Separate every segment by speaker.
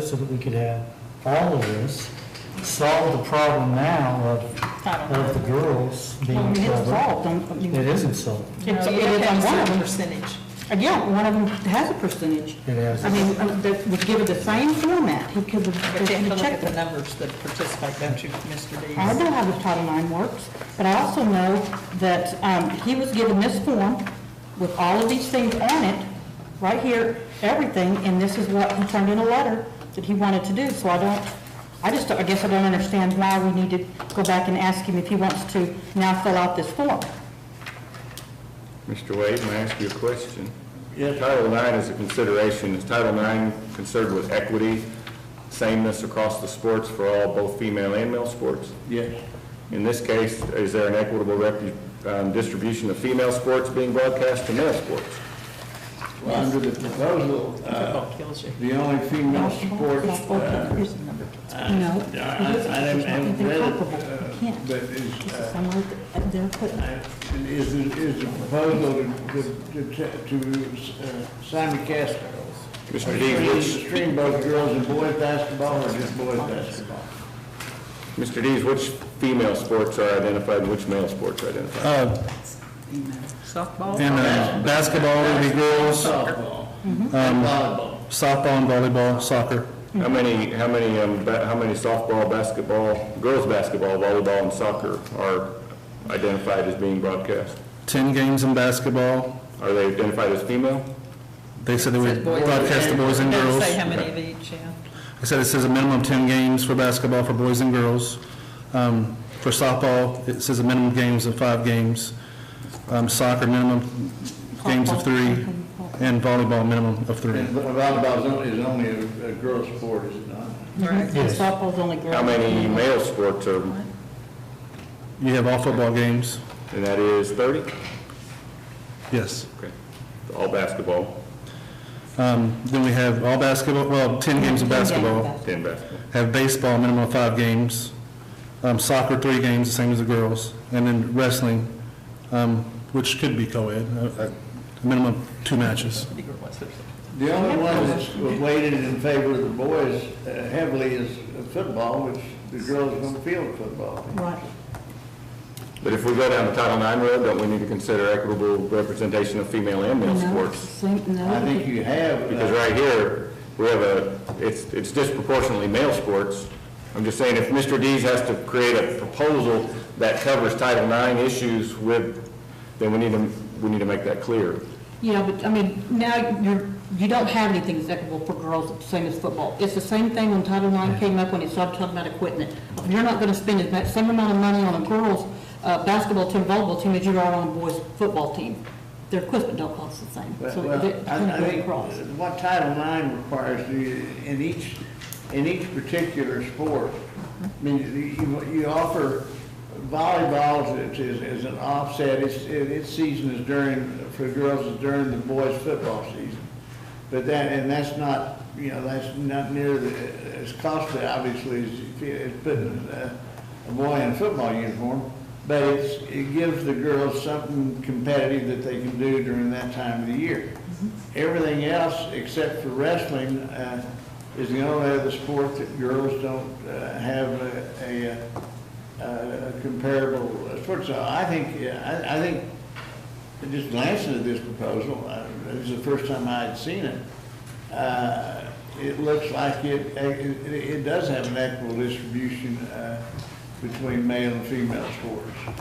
Speaker 1: so that we could have all of this, solve the problem now of, of the girls
Speaker 2: Well,
Speaker 1: being
Speaker 2: It's
Speaker 1: covered.
Speaker 2: solved, don't- I mean,
Speaker 1: It isn't solved.
Speaker 2: it's-
Speaker 3: No, you
Speaker 2: it
Speaker 3: have
Speaker 2: is
Speaker 3: to
Speaker 2: on
Speaker 3: have
Speaker 2: one
Speaker 3: a
Speaker 2: of
Speaker 3: certain
Speaker 2: them.
Speaker 3: percentage.
Speaker 2: Again, one of them has a percentage.
Speaker 1: It has.
Speaker 2: I mean, uh, that would give it the same format, he could
Speaker 3: But you have to
Speaker 2: have
Speaker 3: look at
Speaker 2: checked
Speaker 3: the
Speaker 2: it.
Speaker 3: numbers that participate, don't you, Mr. Dees?
Speaker 2: I know how the Title IX works, but I also know that um, he was given this form with all of these things on it, right here, everything, and this is what he turned in a letter that he wanted to do, so I don't, I just, don't- I guess I don't understand why we need to go back and ask him if he wants to now fill out this form.
Speaker 4: Mr. Wade, may I ask you a question? Title IX is a consideration, is Title IX concerned with equity, sameness across the sports for all, both female and male sports?
Speaker 5: Yeah,
Speaker 4: In this case, is there an equitable repu- um, distribution of female sports being broadcast to male sports?
Speaker 5: well, under the proposal, uh,
Speaker 3: Football kills you.
Speaker 5: the only female sports, uh,
Speaker 3: Here's the number.
Speaker 2: No.
Speaker 5: I- I haven't- I haven't read it, uh, but
Speaker 2: It's
Speaker 5: is,
Speaker 2: just
Speaker 5: uh,
Speaker 2: somewhere that they're putting,
Speaker 5: is, is the proposal to, to, to uh, simulcast?
Speaker 4: Mr. Dees,
Speaker 5: Stream-
Speaker 4: which,
Speaker 5: Stream both girls and boys basketball or just boys basketball?
Speaker 4: Mr. Dees, which female sports are identified and which male sports are identified?
Speaker 3: Softball?
Speaker 6: Uh, And uh, basketball would be girls, um,
Speaker 5: Softball,
Speaker 2: Mm-hmm.
Speaker 5: volleyball.
Speaker 6: softball and volleyball, soccer.
Speaker 4: How many, how many, um, ba- how many softball, basketball, girls' basketball, volleyball, and soccer are identified as being broadcast?
Speaker 6: 10 games in basketball.
Speaker 4: Are they identified as female?
Speaker 6: They said they would
Speaker 3: Boys
Speaker 6: broadcast the boys and
Speaker 3: Doesn't
Speaker 6: girls.
Speaker 3: Say how
Speaker 6: They
Speaker 3: many of each, yeah.
Speaker 6: said it says a minimum of 10 games for basketball for boys and girls. Um, For softball, it says a minimum games of five games. Um, Soccer, minimum games of three. And volleyball, minimum of three.
Speaker 5: And volleyball is only, is only a, a girl's sport, is it not?
Speaker 3: Right.
Speaker 1: Yes.
Speaker 2: softball's only girls.
Speaker 4: How many male sports are,
Speaker 6: You have all football games,
Speaker 4: and that is 30?
Speaker 6: yes.
Speaker 4: Okay. All basketball,
Speaker 6: Um, Then we have all basketball, well, 10 games of basketball.
Speaker 4: 10 basketball.
Speaker 6: have baseball, minimum of five games, um, soccer, three games, the same as the girls, and then wrestling, um, which could be co-ed, uh, uh, a minimum of two matches.
Speaker 3: Bigger ones, there's-
Speaker 5: The only one that's weighted in favor of the boys uh, heavily is football, which the girls don't field football.
Speaker 2: Right.
Speaker 4: But if we go down the Title IX road, don't we need to consider equitable representation of female and male
Speaker 2: No,
Speaker 4: sports?
Speaker 2: same-
Speaker 5: I
Speaker 2: no,
Speaker 5: think you have. uh,
Speaker 4: Because right here, we have a, it's, it's disproportionately male sports. I'm just saying, if Mr. Dees has to create a proposal that covers Title IX issues with, then we need to, we need to make that clear.
Speaker 2: you know, but, I mean, now you're, you don't have anything that's equitable for girls, same as football. It's the same thing when Title IX came up, when it started talking about equipment. You're not gonna spend as much, same amount of money on a girls' uh, basketball team, volleyball team as you are on a boys' football team. Their equipment don't cost the same,
Speaker 5: Well,
Speaker 2: so
Speaker 5: well,
Speaker 2: they're
Speaker 5: I I
Speaker 2: gonna go
Speaker 5: think
Speaker 2: across.
Speaker 5: what Title IX requires you, in each, in each particular sport, I mean, you, you offer volleyball as, as- as an offset, its, its season is during, for girls is during the boys' football season. But that, and that's not, you know, that's not near the, as costly, obviously, as, if you- as putting uh, a boy in a football uniform. But it's, it gives the girls something competitive that they can do during that time of the year. Everything else, except for wrestling, uh, is the only other sport that girls don't, uh, have a, a, uh, a comparable uh, sport. So I think, yeah, I, I think and Just glancing at this proposal, uh, this is the first time I had seen it, uh, it looks like it, it it does have an equitable distribution uh, between male and female sports,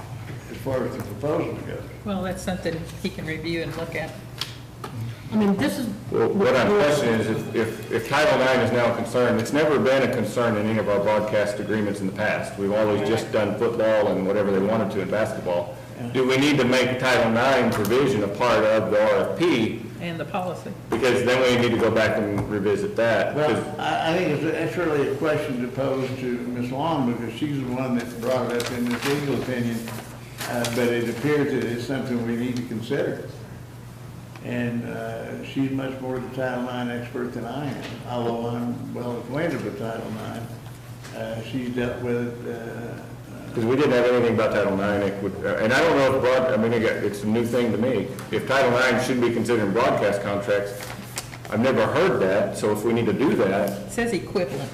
Speaker 5: as far as the proposal goes.
Speaker 3: Well, that's something he can review and look at.
Speaker 2: I mean, this is.
Speaker 4: Well, What I'm questioning is if- if, if Title IX is now a concern, it's never been a concern in any of our broadcast agreements in the past. We've always just done football and whatever they wanted to in basketball. Do we need to make Title IX provision a part of the RFP?
Speaker 3: And the policy.
Speaker 4: Because then we need to go back and revisit that. 'cause-
Speaker 5: Well, I, I think it's- that's really a question to pose to Ms. Long, because she's the one that brought it up in this legal opinion, uh, but it appears that it's something we need to consider. And uh, she's much more the Title IX expert than I am, although I'm well acquainted with Title IX. Uh, She's dealt with it, uh,
Speaker 4: Because we didn't have anything about Title IX, it would- uh, and I don't know if broad, I mean, again, it's a new thing to me. If Title IX shouldn't be considered in broadcast contracts, I've never heard that, so if we need to do that,
Speaker 3: It says equivalent.